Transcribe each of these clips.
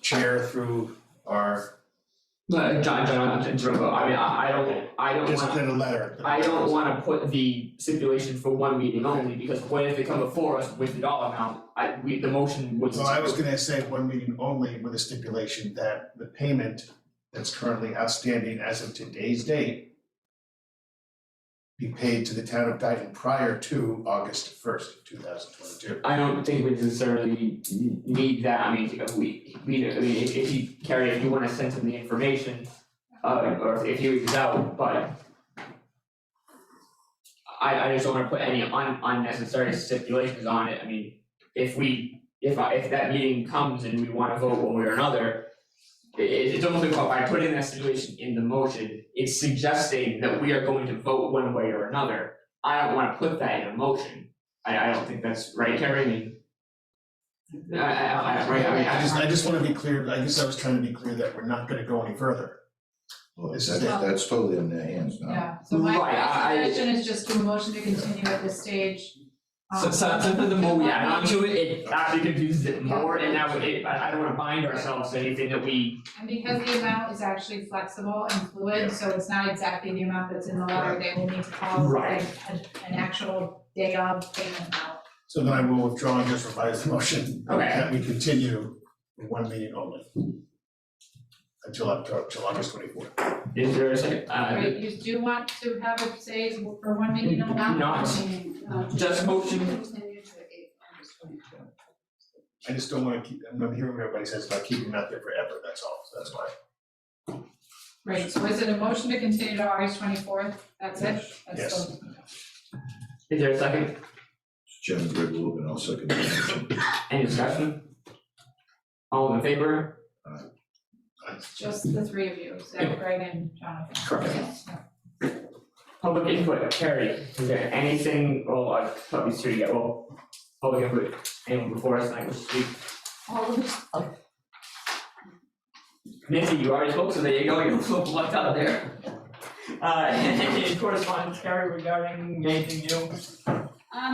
share through our, Uh, John, John, John, John, I mean, I, I don't, I don't just wanna, in a letter. I don't wanna put the stipulation for one meeting only, because what if they come before us with the dollar amount? I, we, the motion would. Well, I was gonna say one meeting only with a stipulation that the payment that's currently outstanding as of today's date be paid to the town of Dayton prior to August first, two thousand twenty-two. I don't think we necessarily need that, I mean, we, we, I mean, if, if you, Carrie, if you wanna send him the information, uh, or if he reaches out, but I, I just don't wanna put any un- unnecessary stipulations on it, I mean, if we, if I, if that meeting comes and we wanna vote one way or another, it, it's almost like by putting that stipulation in the motion, it's suggesting that we are going to vote one way or another. I don't wanna put that in a motion, I, I don't think that's right, Carrie, I mean. I, I, I, right, I mean, I just, I just wanna be clear, I guess I was trying to be clear that we're not gonna go any further. Well, This that's, is it. that's totally in their hands now. Yeah, so my Right, I- I- suggestion is just do a motion to continue at this stage. So, um, so, so for the more we add on to it, it Okay. actually confuses it more, and that would, it, I, I don't wanna bind ourselves to anything that we, And because the amount is actually flexible and Yeah. fluid, so it's not exactly the amount that's in the letter, they will need to call like Right. an, an actual day of payment amount. So then I will withdraw and just revise the motion Okay. that we continue with one meeting only. Until October, till August twenty-fourth. is there a second, uh, Right, you do want to have it say is for one Um, meeting only? Not. Just motion. I just don't wanna keep, I'm hearing what everybody says about keeping that there forever, that's all, so that's why. Right, so is it a motion to continue to August twenty-fourth? That's it? That's Yes. the- is there a second, Jim, Greg Logan, I'll second the motion. any discussion? All in favor? It's just the three of you, Zach, Greg, and Jonathan. Public input, Carrie, is there anything, well, I thought these three, yeah, well, public input, anyone before us, I was speak. All of us. Nancy, you already spoke, so there you go, you're blocked out there. Uh, any correspondence, Carrie, regarding anything new? Um,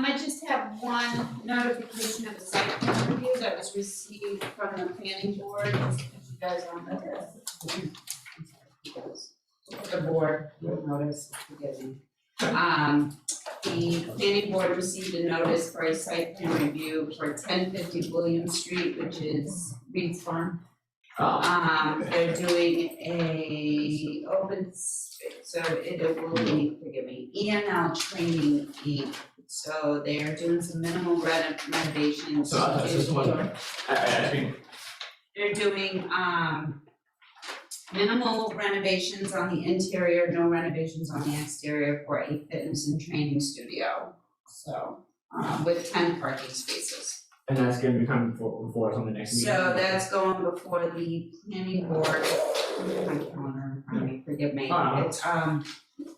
I just have one notification of a site plan review that was received from the planning board, if you guys want that. The board will notice, forgive me. Um, the planning board received a notice for a site plan review for ten fifty William Street, which is Reed's Farm. Uh, Um, they're doing a open, space, so it will be, forgive me, E N L training Inc. So they are doing some minimal reno- renovations. so, uh, just one, I, I, I think, They're doing, um, minimal renovations on the interior, no renovations on the exterior for a fitness and training studio. So, um, with ten parking spaces. and that's gonna be coming before, before us on the next meeting. So that's going before the planning board, my calendar, I mean, forgive me, Uh-huh. it's, um,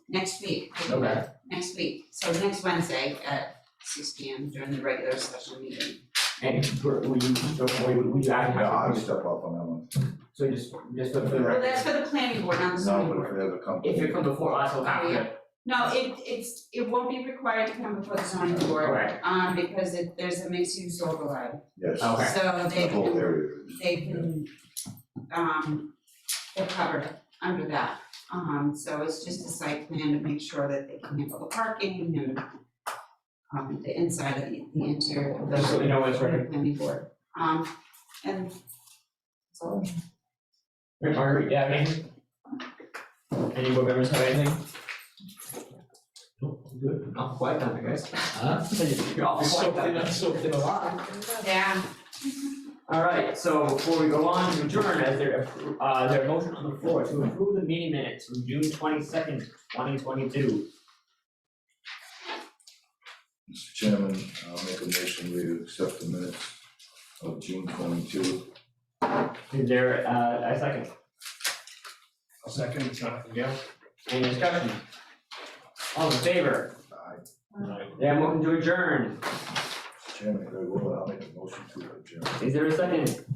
next week. Okay. Next week, so next Wednesday at six P M during the regular session meeting. And were were you, were you, were you acting? Yeah, I'll step up on that one. So just, just for the Well, record, that's for the planning board, not the zoning No, but if board. it ever comes. if it comes before us, we'll have to, No, it, it's, it won't be required to come before the zoning board, alright, um, because it, there's a mixed use overlay. Yes, Okay. So they the whole can, area. they can, um, they're covered under that. Um, so it's just a site plan to make sure that they can handle the parking and um, the inside of the, the interior of the. Just so we know what's right. Planning board, um, and so, Margaret, yeah, anything? Any board members have anything? Nope, I'm good. Not quite done, I guess. Huh? You're all quite done. 啊 yeah, Alright, so before we go on to adjourn, as there, uh, there a motion on the floor to approve the meeting minutes from June twenty-second, twenty twenty-two. Mr. Chairman, I'll make a motion to accept the minutes of June twenty-two. Is there, uh, a second? I'll second, Jonathan Gale. Any discussion? All in favor? Aye. Yeah, motion to adjourn. Mr. Chairman, Greg Logan, I'll make a motion to adjourn. Is there a second?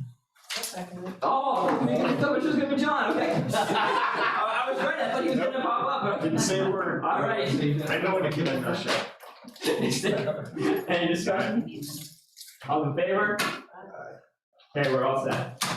Oh, man, I thought it was gonna be John, okay. I I was right, I thought he was gonna pop up, but. Didn't say a word. All right. I know when a kid I know shall. Any discussion? All in favor? Okay, we're all set.